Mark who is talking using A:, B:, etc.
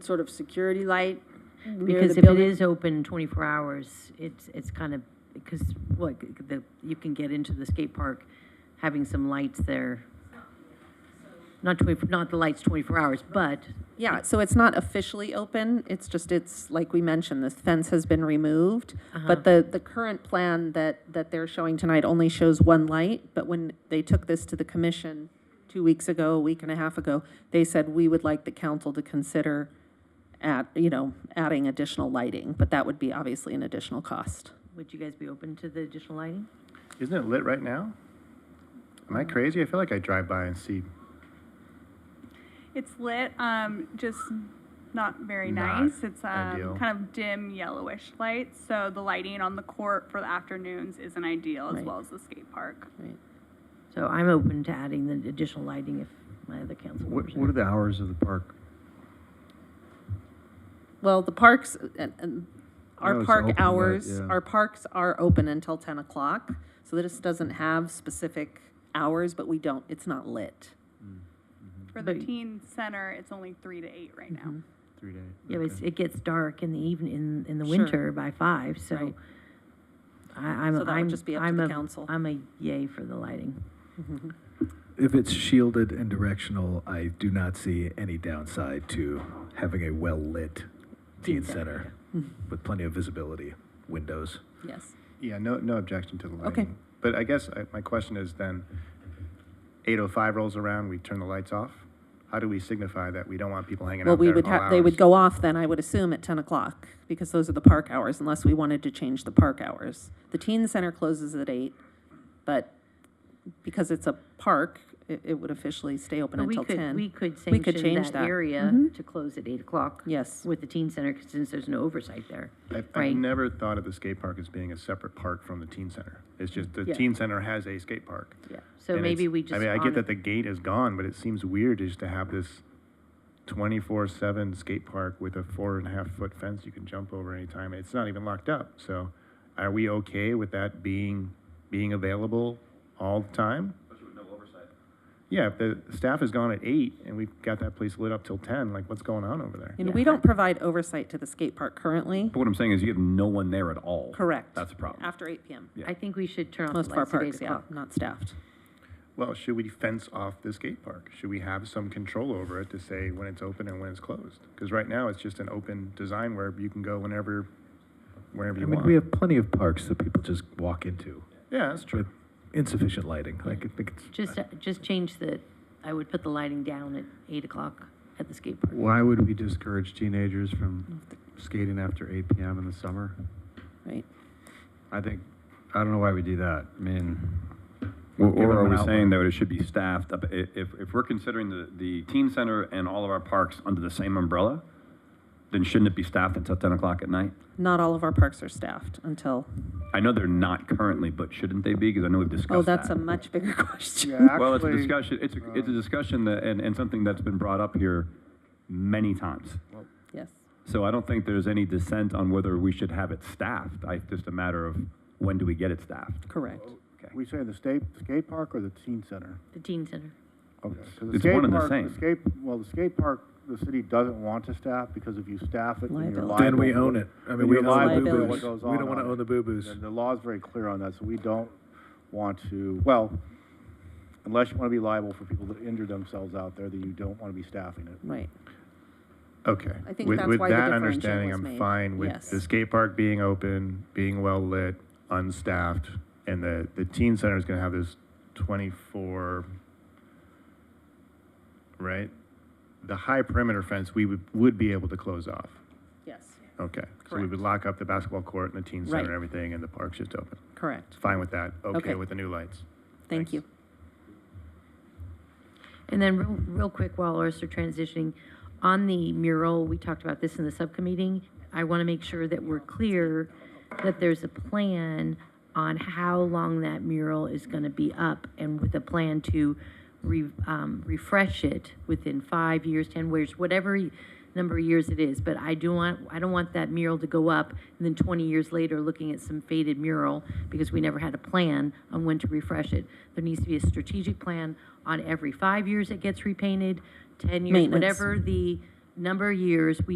A: some sort of security light near
B: Because
A: the
B: if it
A: building?
B: is open 24 hours, it's, it's kind of, because, what, the, you can get into the skate park having some lights there. Not 20, not the lights 24 hours, but,
C: Yeah, so it's not officially open, it's just, it's, like we mentioned, this fence has been removed.
B: uh-huh.
C: But the, the current plan that, that they're showing tonight only shows one light, but when they took this to the commission two weeks ago, a week and a half ago, they said, we would like the council to consider at, you know, adding additional lighting, but that would be obviously an additional cost.
B: would you guys be open to the additional lighting?
D: Isn't it lit right now? Am I crazy? I feel like I drive by and see.
E: It's lit, um, just not very
D: Not
E: nice. It's
D: ideal.
E: um, kind of dim yellowish light, so the lighting on the court for the afternoons isn't ideal, as
C: Right.
E: well as the skate park.
C: Right.
B: So I'm open to adding the additional lighting if my other council members.
F: What, what are the hours of the park?
C: Well, the parks, and, and
F: know
C: our
F: it's
C: park
F: open, but,
C: hours,
F: yeah.
C: our parks are open until ten o'clock, so this doesn't have specific hours, but we don't, it's not lit.
E: For the
B: But-
E: teen center, it's only three to eight right
C: Mm-hmm.
E: now.
F: Three days.
B: Yeah, but it's, it gets dark in the evening, in, in the
C: Sure.
B: winter by five, so.
C: Right.
B: I, I'm,
C: So that would
B: I'm,
C: just be up to
B: I'm
C: the
B: a-
C: council.
B: I'm a yay for the lighting. Mm-hmm.
G: If it's shielded and directional, I do not see any downside to having a well-lit
B: Teen
G: teen center with plenty of visibility, windows.
C: Mm-hmm. Yes.
D: Yeah, no, no objection to the lighting.
C: Okay.
D: But I guess I, my question is then, 8:05 rolls around, we turn the lights off. How do we signify that we don't want people hanging
C: Well,
D: out
C: we
D: there
C: would
D: all
C: have, they
D: hours?
C: would go off then, I would assume, at ten o'clock, because those are the park hours, unless we wanted to change the park hours. The teen center closes at eight, but because it's a park, it, it would officially stay open
B: But we
C: until
B: could-
C: ten.
B: We could
C: We could
B: sanction
C: change
B: that
C: that.
B: area
C: Mhm.
B: to close at eight o'clock.
C: Yes.
B: With the teen center, 'cause since there's no oversight there.
D: I've,
B: right.
D: I've never thought of the skate park as being a separate park from the teen center. It's just the
C: Yeah.
D: teen center has a skate park.
C: Yeah.
B: So
D: And
B: maybe
D: it's-
B: we just.
D: I mean, I
B: honor-
D: get that the gate is gone, but it seems weird just to have this 24/7 skate park with a four and a half foot fence you can jump over anytime. It's not even locked up. So, are we okay with that being being available all the time? Yeah, if the staff is gone at eight and we've got that place lit up till ten, like what's going on over there?
C: And we don't provide oversight to the skate park currently.
H: But what I'm saying is you have no one there at all.
C: Correct.
H: That's a problem.
C: After eight PM.
H: Yeah.
B: I think we should turn off
C: Most
B: the
C: of our
B: lights at eight
C: parks, yeah,
B: o'clock.
C: not staffed.
D: Well, should we fence off the skate park? Should we have some control over it to say when it's open and when it's closed? Because right now, it's just an open design where you can go whenever, wherever
G: I
D: you
G: mean,
D: want.
G: we have plenty of parks that people just walk into
D: Yeah, that's true.
G: with insufficient lighting. Like, I think it's,
B: Just, uh, just change the, I would put the lighting down at eight o'clock at the skate park.
F: Why would we discourage teenagers from skating after 8 p.m. in the summer?
C: Right.
F: I think, I don't know why we do that. I mean,
H: Or,
F: Give them
H: or are
F: an
H: we
F: outlet.
H: saying that it should be staffed up? I- If, if we're considering the, the teen center and all of our parks under the same umbrella, then shouldn't it be staffed until 10 o'clock at night?
C: Not all of our parks are staffed until,
H: I know they're not currently, but shouldn't they be? Because I know we've discussed
C: oh, that's
H: that.
C: a much bigger question.
D: Yeah,
H: Well, it's a
D: actually-
H: discussion, it's a,
I: uh,
H: it's a discussion that, and, and something that's been brought up here many times.
C: Yes.
H: So I don't think there's any dissent on whether we should have it staffed. I, just a matter of when do we get it staffed?
C: Correct.
I: We say the state, skate park or the teen center?
B: The teen center.
I: Okay, 'cause
H: Oh, It's one
I: skate
H: and the
I: park-
H: same.
I: skate, well, the skate park, the city doesn't want to staff, because if you staff it, then you're liable.
C: Liability.
G: then we own it. I mean,
I: Then
G: we
I: you're
G: own the
I: liable for
G: boo-boos.
I: what
G: We
I: goes
G: don't
I: on
G: want to
I: on it.
G: own the boo-boos.
I: And the law's very clear on that, so we don't want to, well, unless you want to be liable for people that injure themselves out there, then you don't want to be staffing it.
C: Right.
D: Okay.
C: I think
D: With-
C: that's why the differential
D: With that understanding,
C: was
D: I'm
C: made.
D: fine with
C: Yes.
D: the skate park being open, being well-lit, unstaffed, and the, the teen center is going to have this 24, right? The high perimeter fence, we would, would be able to close off.
C: Yes.
D: Okay. So we would
C: Correct.
D: lock up the basketball court and the teen center and
C: Right.
D: everything, and the park's just open.
C: Correct.
D: Fine with that. Okay
C: Okay.
D: with the new lights.
C: Thank
D: Thanks.
C: you.
B: And then, real, real quick, while ours are transitioning, on the mural, we talked about this in the subcommittee. I want to make sure that we're clear that there's a plan on how long that mural is going to be up and with a plan to re, um, refresh it within five years, 10 years, whatever y- number of years it is. But I do want, I don't want that mural to go up and then 20 years later looking at some faded mural because we never had a plan on when to refresh it. There needs to be a strategic plan on every five years it gets repainted, 10 years,
C: Maintenance.
B: whatever the number of years, we